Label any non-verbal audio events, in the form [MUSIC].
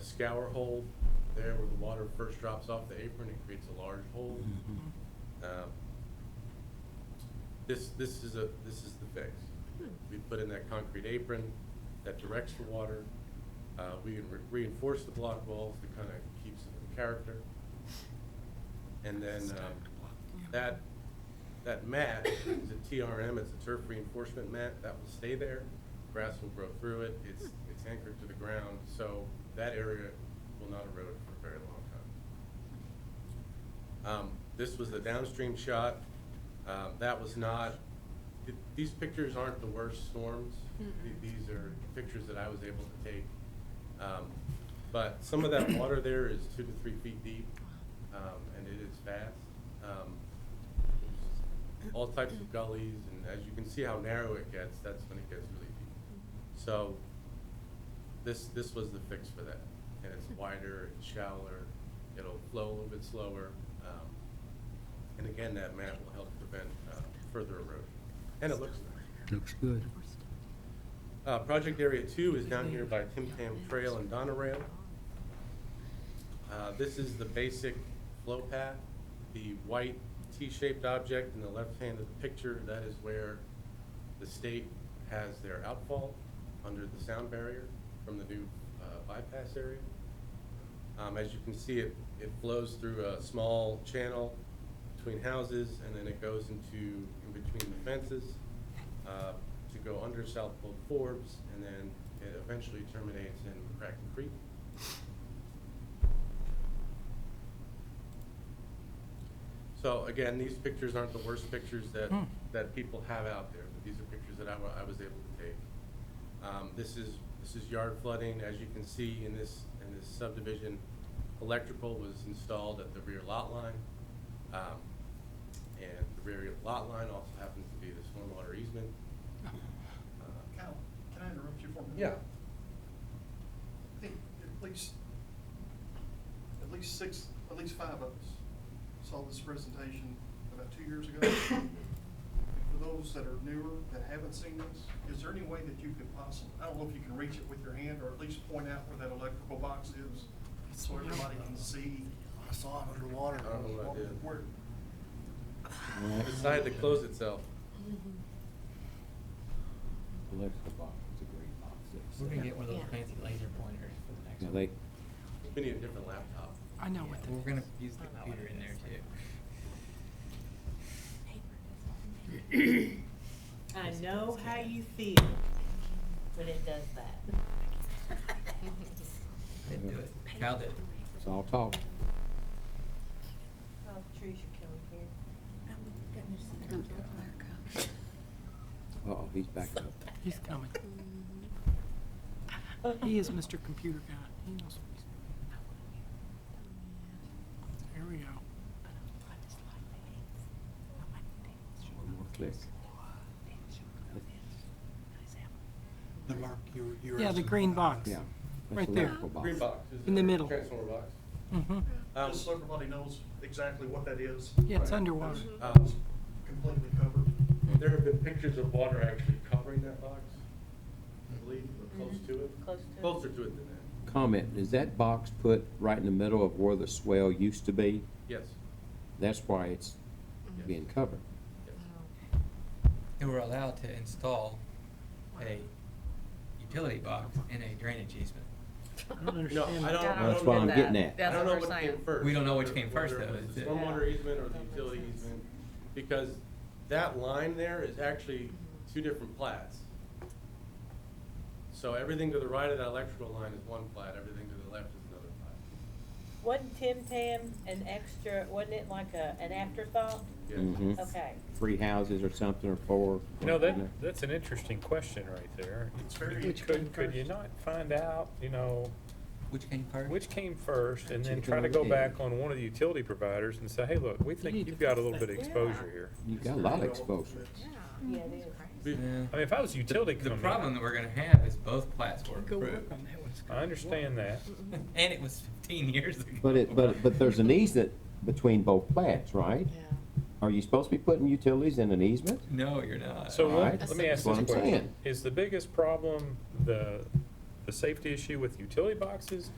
scour hole there where the water first drops off the apron, it creates a large hole. Mm-hmm. Um, This, this is a, this is the fix. We put in that concrete apron that directs the water. Uh, we re- reinforce the block walls to kind of keeps it in character. And then, um, that, that mat is a TRM, it's a turf reinforcement mat, that will stay there. Grass will grow through it, it's, it's anchored to the ground, so that area will not erode for a very long time. Um, This was the downstream shot. Um, That was not, th- these pictures aren't the worst storms. Th- These are pictures that I was able to take. Um, But some of that water there is two to three feet deep, um, and it is fast. Um, there's All types of gullies, and as you can see how narrow it gets, that's when it gets really deep. So this, this was the fix for that. And it's wider, it's shallower, it'll flow a little bit slower. um, And again, that mat will help prevent uh, further erosion. And it looks nice. Looks good. Uh, Project Area Two is down here by Tim Tam Trail and Donna Rail. Uh, This is the basic flow path, the white T-shaped object in the left hand of the picture, that is where the state has their outfall under the sound barrier from the new uh, bypass area. Um, As you can see, it, it flows through a small channel between houses, and then it goes into, in between the fences uh, to go under South Pole Forbes, and then it eventually terminates in Cracken Creek. So again, these pictures aren't the worst pictures that, that people have out there, but these are pictures that I, wa- I was able to take. Um, this is, this is yard flooding, as you can see in this, in this subdivision, electrical was installed at the rear lot line. Um, and the rear lot line also happens to be the stormwater easement. Uh, Cal, can I interrupt you for a minute? Yeah, I think at least, at least six, at least five of us saw this presentation about two [COUGHS] years ago. For those that are newer, that haven't seen this, is there any way that you could possibly, I don't know if you can reach it with your hand or at least point out where that electrical box is so everybody can see? I saw it underwater. I don't know what I did. Where- it decided to close itself. Electrical box, it's a great box. It's- We're gonna get one of those Yeah. fancy laser pointers for the next Now, one. they, We need a different laptop. I know what that We're gonna is. use the computer in there too. I know how you feel when it does that. Didn't do it. Cal did. it's all talk. Oh, trees are coming here. Uh-oh, he's back up. He's coming. He is Mr. Computer Guy. He knows what he's doing. Here we go. One more click. The mark you, you were. Yeah, the asking green about. box. Yeah. that's Right there. electrical box. Green box. is In the there a middle. Transformer box. Mm-hmm. Um, Just so everybody knows exactly what that is. Yeah, it's Right. underwater. um, Completely covered. There have been pictures of water actually covering that box, I believe, or close Mm-hmm. Mhm. to it. Close to it. Closer to it than that, Comment, is that box put right in the middle of where the swell used to be? yes, That's why it's being covered. yes. Oh. And we're allowed to install a utility box in a drainage easement. I don't understand. No, I that. don't, I That's don't what know I'm that. getting at. I That's don't what know we're what saying. came first. We don't know which whether- came first, whether it though, was is the it? Stormwater easement or the utility sense. easement, because that line there is actually two different plats. So everything to the right of that electrical line is one plat, everything to the left is another plat. Wasn't Tim Tam an extra, wasn't it like a, an afterthought? Yes. Mm-hmm. Mhm. Okay. Three houses or something, or four. You know, that, that's an interesting question right there. It's very. Could, could you not find out, you know, Which came first? which came first and then Chicken try to or go egg? back on one of the utility providers and say, hey, look, we need think to you've got a fix little that. bit of exposure here. You've got a lot of exposure. Yeah, it We- is. Yeah. I mean, if I was a utility The company. problem that we're gonna have is both plats were Go work approved. on that one. It's I understand that. [LAUGHS] Mm-hmm. And it was fifteen years ago. But it, but, but there's an easement between both plats, right? Are you supposed to be putting utilities in an easement? No, you're not. So All let right. let me That's ask what this I'm question. saying. Is the biggest problem the, the safety issue with utility boxes